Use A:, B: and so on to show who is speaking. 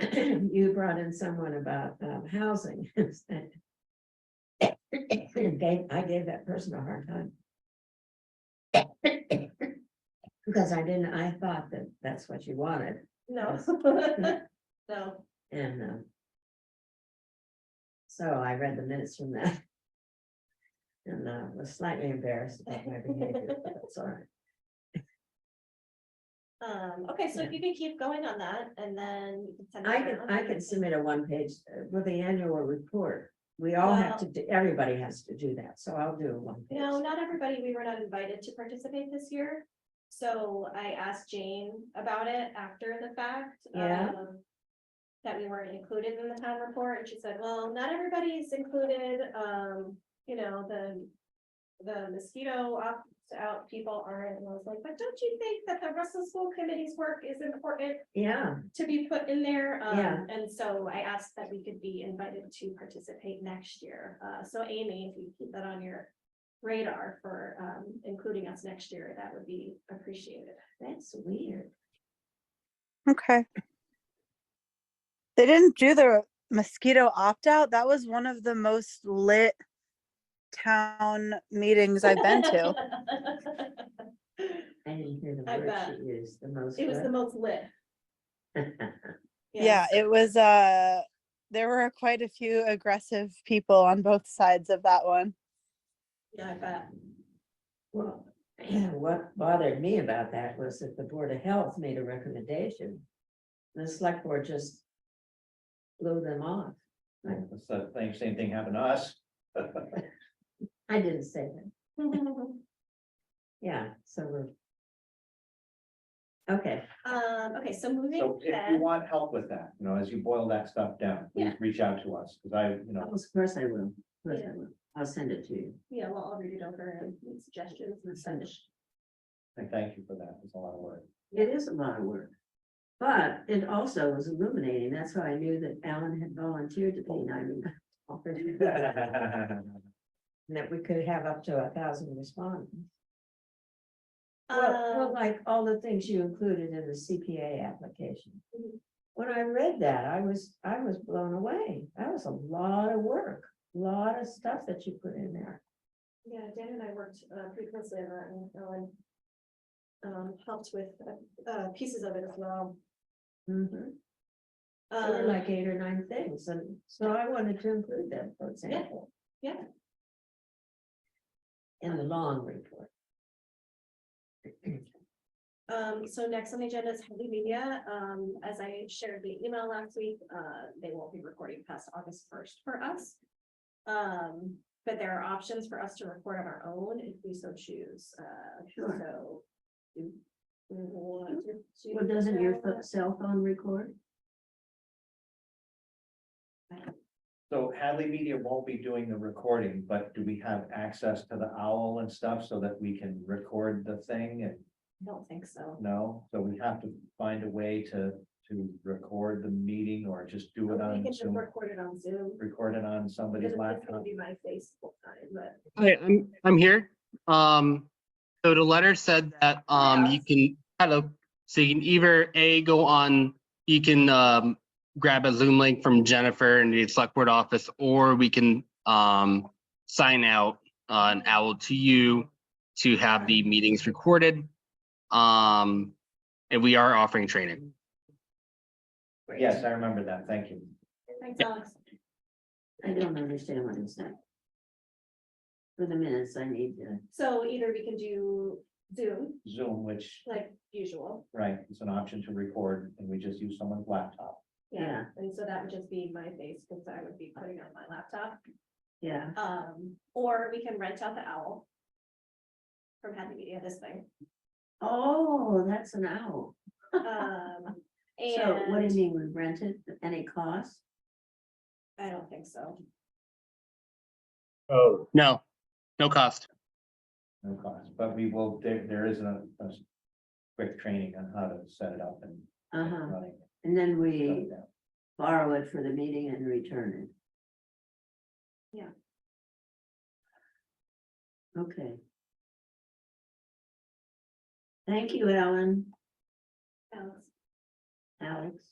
A: you brought in someone about um housing. Gave- I gave that person a hard time. Because I didn't, I thought that that's what you wanted
B: No. No,
A: and um. So I read the minutes from that. And uh was slightly embarrassed about my behavior, but that's all right.
B: um, okay, so if you can keep going on that and then. you can send it
A: I can,
B: around.
A: I can submit a one page uh, with the annual report. We all have to, do. everybody has to do that, so I'll do a one. page.
B: No, not everybody, we were not invited to participate this year. So I asked Jane about it after the fact.
A: Yeah.
B: um, That we weren't included in the town report, and she said, well, not everybody's included, um, you know, the. The mosquito opt-out people aren't, and I was like, but don't you think that the Russell School Committee's work is important
A: Yeah,
B: to be put in there? Um,
A: Yeah.
B: And so I asked that we could be invited to participate next year. Uh, so Amy, if you keep that on your radar for, um, including us next year, that would be appreciated.
A: that's weird.
C: Okay. They didn't do the mosquito opt out. That was one of the most lit town meetings I've been to.
A: I didn't hear the
B: I
A: word
B: bet.
A: she used, the most.
B: It was the
A: what?
B: most lit.
C: Yeah, it was uh there were quite a few aggressive people on both sides of that one.
B: Yeah, I bet.
A: Well, what bothered me about that was that the Board of Health made a recommendation. The select board just blew them off.
D: It's the same, same thing happened to us.
A: I didn't say that. Yeah, so we're. Okay,
B: Um, okay, so moving
D: So if you
B: then,
D: want help with that, you know, as you boil that stuff down,
B: Yeah.
D: please reach out to us, because I, you
A: of
D: know,
A: course I will. Of course
B: Yeah.
A: I will. I'll send it to you.
B: yeah, well, I'll read it over and make suggestions and send it.
D: I thank you for that. It's a lot of work.
A: It is a lot of work. But it also was illuminating. That's how I knew that Alan had volunteered to be nine. And that we could have up to a thousand respondents. Well, well,
B: Um,
A: like all the things you included in the CPA application.
B: Mhm.
A: When I read that, I was, I was blown away. That was a lot of work, lot of stuff that you put in there.
B: Yeah, Dan and I worked uh, pretty closely on that and Ellen um, helped with uh, uh, pieces of it as well.
A: Mhm. There were
B: Um,
A: like eight or nine things, and so I wanted to include them, for example.
B: yeah.
A: In the long report.
B: um, So next on the agenda is heavy media. Um, As I shared the email last week, uh, they won't be recording past August first for us. Um, But there are options for us to record on our own if we so choose. Uh,
A: Sure.
B: So. do we want to do
A: Well, doesn't your pho-
B: that?
A: cell phone record?
D: So Hadley Media won't be doing the recording, but do we have access to the owl and stuff so that we can record the thing and
B: I don't think so.
D: no? So we have to find a way to, to record the meeting or just do
B: We
D: it
B: can
D: on
B: just
D: Zoom,
B: record it on Zoom.
D: record it on somebody's
B: It's gonna
D: laptop.
B: be my face full time, but.
E: Hi, I'm, I'm here. Um, so the letter said that, um, you can, hello, so you can either A, go on, you can, um, grab a Zoom link from Jennifer in the select board office, or we can, um, sign out on OWL to you to have the meetings recorded. Um, and we are offering training.
D: Yes, I remember that. Thank you.
B: Thanks, Alex.
A: I don't understand what I'm saying. For the minutes, I need to.
B: So either we can do Zoom
D: Zoom, which,
B: like usual.
D: right, it's an option to record and we just use someone's laptop.
A: Yeah.
B: And so that would just be my face because I would be putting on my laptop.
A: Yeah,
B: Um, or we can rent out the owl. From Happy Media, this thing.
A: oh, that's an owl.
B: Um,
A: So what do you
B: and
A: mean, we rent it at any cost?
B: I don't think so.
E: Oh. No, no cost.
D: No cost, but we will, there, there is a, a quick training on how to set it up and. get it
A: Uh-huh,
D: running.
A: and then we
D: So,
A: borrow it for the meeting and return it.
B: Yeah.
A: Okay. Thank you, Alan,
B: Alex.
A: Alex.